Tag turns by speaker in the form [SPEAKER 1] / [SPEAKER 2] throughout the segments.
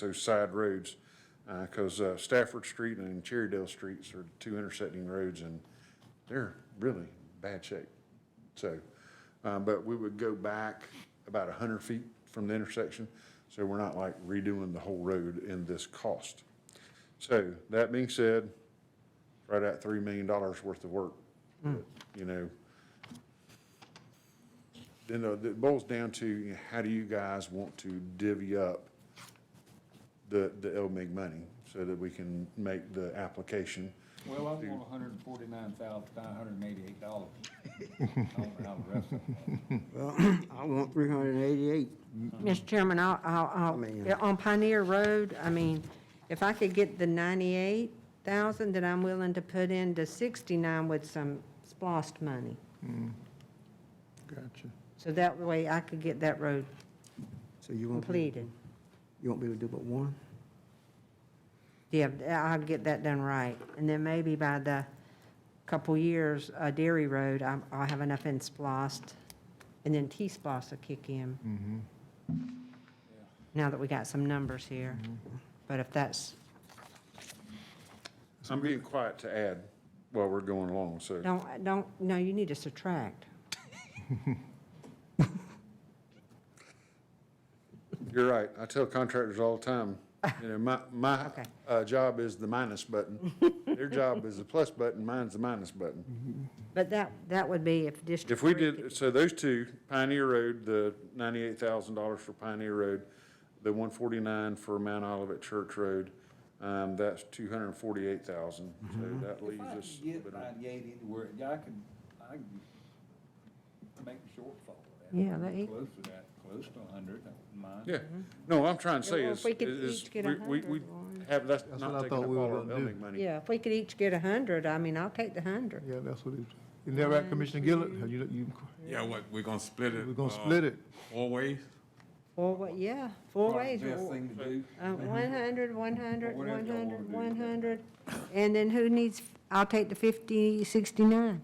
[SPEAKER 1] those side roads, because Stafford Street and Cherrydale Streets are two intersecting roads, and they're really bad shape. So, uh, but we would go back about 100 feet from the intersection, so we're not like redoing the whole road in this cost. So, that being said, right at $3 million worth of work, you know, then uh, it boils down to you know, how do you guys want to divvy up the, the LMIG money so that we can make the application.
[SPEAKER 2] Well, I want hundred and forty-nine thousand, nine hundred and eighty-eight dollars. I don't know how the rest of them.
[SPEAKER 3] Well, I want three hundred and eighty-eight.
[SPEAKER 4] Mr. Chairman, I'll, I'll, I'll-
[SPEAKER 3] mean-
[SPEAKER 4] yeah, on Pioneer Road, I mean, if I could get the ninety-eight thousand that I'm willing to put into sixty-nine with some splost money.
[SPEAKER 3] Gotcha.
[SPEAKER 4] So that way I could get that road
[SPEAKER 3] So you won't, be-
[SPEAKER 4] completed.
[SPEAKER 3] you won't be able to do but one?
[SPEAKER 4] Yeah, I'll get that done right. And then maybe by the couple years, uh, Dairy Road, I'm, I'll have enough in splost. And then T-splost will kick in. Now that we got some numbers here. But if that's,
[SPEAKER 1] I'm being quiet to add while we're going along, so.
[SPEAKER 4] don't, don't, no, you need to subtract.
[SPEAKER 1] You're right. I tell contractors all the time, you know, my, my,
[SPEAKER 4] Okay.
[SPEAKER 1] uh, job is the minus button. Their job is the plus button, mine's the minus button.
[SPEAKER 4] But that, that would be if District.
[SPEAKER 1] If we
[SPEAKER 4] three
[SPEAKER 1] did, so those two, Pioneer Road, the ninety-eight thousand dollars for Pioneer Road, the one forty-nine for Mount Olivet Church Road, um, that's two hundred and forty-eight thousand,
[SPEAKER 4] Mm-hmm.
[SPEAKER 1] so that leaves
[SPEAKER 2] If I could
[SPEAKER 1] us. a
[SPEAKER 2] get
[SPEAKER 1] bit of-
[SPEAKER 2] ninety-eight anywhere, yeah, I could, I could make a shortfall. of that.
[SPEAKER 4] Yeah, that ain't-
[SPEAKER 2] Close to that, close to a hundred, I wouldn't mind.
[SPEAKER 1] Yeah, no, what I'm trying to say
[SPEAKER 4] Yeah, Mm-hmm. well,
[SPEAKER 1] is,
[SPEAKER 4] if we could
[SPEAKER 1] is
[SPEAKER 4] each get
[SPEAKER 1] we,
[SPEAKER 4] a
[SPEAKER 1] we, we
[SPEAKER 4] hundred, Lauren.
[SPEAKER 1] have, that's
[SPEAKER 5] That's what
[SPEAKER 1] not
[SPEAKER 5] I
[SPEAKER 1] taking up
[SPEAKER 5] thought we
[SPEAKER 1] all
[SPEAKER 5] were
[SPEAKER 1] our
[SPEAKER 5] gonna
[SPEAKER 1] building
[SPEAKER 5] do.
[SPEAKER 4] could-
[SPEAKER 1] money.
[SPEAKER 4] Yeah, if we could each get a hundred, I mean, I'll take the hundred.
[SPEAKER 5] Yeah, that's what it, isn't that right, Commissioner Gillett? Have you, you,
[SPEAKER 6] Yeah, what, we're gonna split it?
[SPEAKER 5] we're gonna
[SPEAKER 6] uh,
[SPEAKER 5] split it?
[SPEAKER 6] Four ways?
[SPEAKER 4] Four, wa- yeah, four
[SPEAKER 2] Probably
[SPEAKER 4] ways.
[SPEAKER 2] the Best
[SPEAKER 4] or-
[SPEAKER 2] thing to do.
[SPEAKER 4] Uh, one hundred, one hundred,
[SPEAKER 2] Whatever
[SPEAKER 4] one
[SPEAKER 2] y'all wanna
[SPEAKER 4] hundred,
[SPEAKER 2] do.
[SPEAKER 4] one hundred. And then who needs, I'll take the fifty, sixty-nine.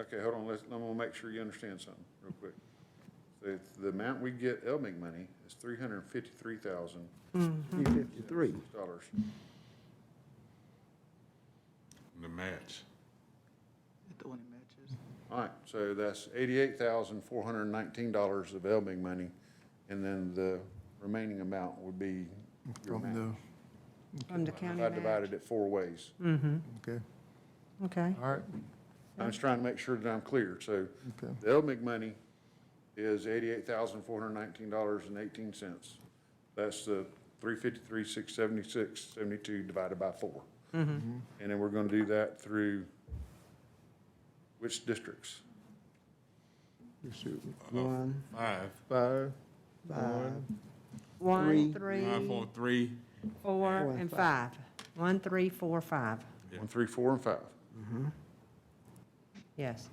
[SPEAKER 1] Okay, hold on, let's, I'm gonna make sure you understand something real quick. The, the amount we get LMIG money is three hundred and fifty-three thousand
[SPEAKER 3] Three fifty-three.
[SPEAKER 1] dollars.
[SPEAKER 6] The match.
[SPEAKER 7] The one that matches.
[SPEAKER 1] All right, so that's eighty-eight thousand, four hundred and nineteen dollars of LMIG money, and then the remaining amount would be your
[SPEAKER 5] From
[SPEAKER 1] match.
[SPEAKER 5] the,
[SPEAKER 4] From the county
[SPEAKER 1] I
[SPEAKER 4] match. Mm-hmm.
[SPEAKER 1] divided it four ways.
[SPEAKER 5] okay,
[SPEAKER 4] Okay,
[SPEAKER 5] all right,
[SPEAKER 1] I'm just trying to make sure that I'm clear, so
[SPEAKER 5] okay.
[SPEAKER 1] the LMIG money is eighty-eight thousand, four hundred and nineteen dollars and eighteen cents. That's the three fifty-three, six seventy-six, seventy-two divided by four.
[SPEAKER 4] Mm-hmm.
[SPEAKER 1] And then we're gonna do that through which districts?
[SPEAKER 5] You shoot me.
[SPEAKER 6] Uh,
[SPEAKER 3] One,
[SPEAKER 6] Five,
[SPEAKER 5] Five,
[SPEAKER 3] five, Three.
[SPEAKER 4] one, three,
[SPEAKER 6] five, four, three,
[SPEAKER 4] four,
[SPEAKER 3] and
[SPEAKER 4] and five. One, three, four, five,
[SPEAKER 6] Yeah.
[SPEAKER 1] One, three, four, and five.
[SPEAKER 4] yes.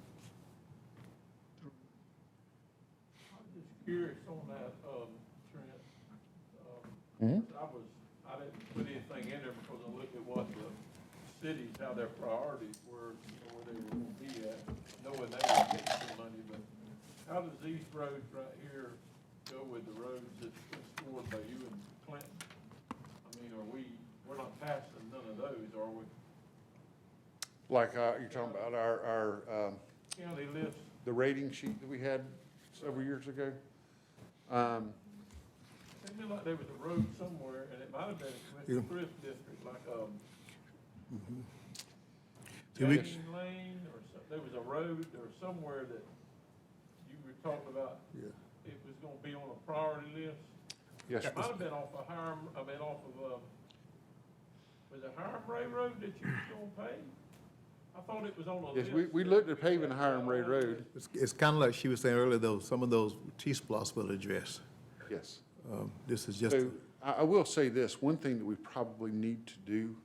[SPEAKER 8] I'm just curious on that, um, Trent. Um, I was, I didn't put anything in there because I looked at what the cities, how their priorities were, you know, where they were gonna be at, knowing they were getting some money, but how does these roads right here go with the roads that's explored by you and Clinton? I mean, are we, we're not passing none of those, are we?
[SPEAKER 1] Like, uh, you're talking about our, our, um,
[SPEAKER 8] County lists
[SPEAKER 1] the rating sheet that we had several years ago. Um,
[SPEAKER 8] Seemed like there was a road somewhere, and it might have been a Commissioner Chris district, like, um,
[SPEAKER 5] Two weeks.
[SPEAKER 8] Jane Lane, or so, there was a road, or somewhere that you were talking about,
[SPEAKER 5] yeah.
[SPEAKER 8] it was gonna be on a priority list.
[SPEAKER 1] Yes,
[SPEAKER 8] It might have been off of Hiram, I mean, off of, um, was it Hiram Ray Road that you was gonna pave? I thought it was on a
[SPEAKER 1] yes,
[SPEAKER 8] list.
[SPEAKER 1] we, we looked at paving Hiram Ray
[SPEAKER 8] Ray
[SPEAKER 1] Road,
[SPEAKER 5] It's, it's kinda like she was saying earlier, though, some of those T-Splosh will address.
[SPEAKER 1] yes.
[SPEAKER 5] Um, this is just,
[SPEAKER 1] So I, I will say this, one thing that we probably need to do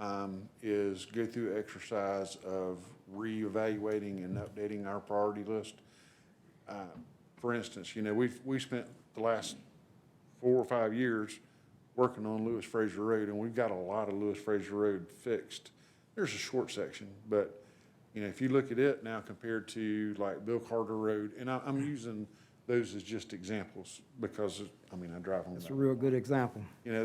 [SPEAKER 1] um, is go through an exercise of reevaluating and updating our priority list. Uh, For instance, you know, we've, we spent the last four or five years working on Lewis Fraser Road, and we've got a lot of Lewis Fraser Road fixed. There's a short section, but, you know, if you look at it now compared to like Bill Carter Road, and I, I'm using those as just examples because, I mean, I drive on that
[SPEAKER 3] that's a real good example.
[SPEAKER 1] you know,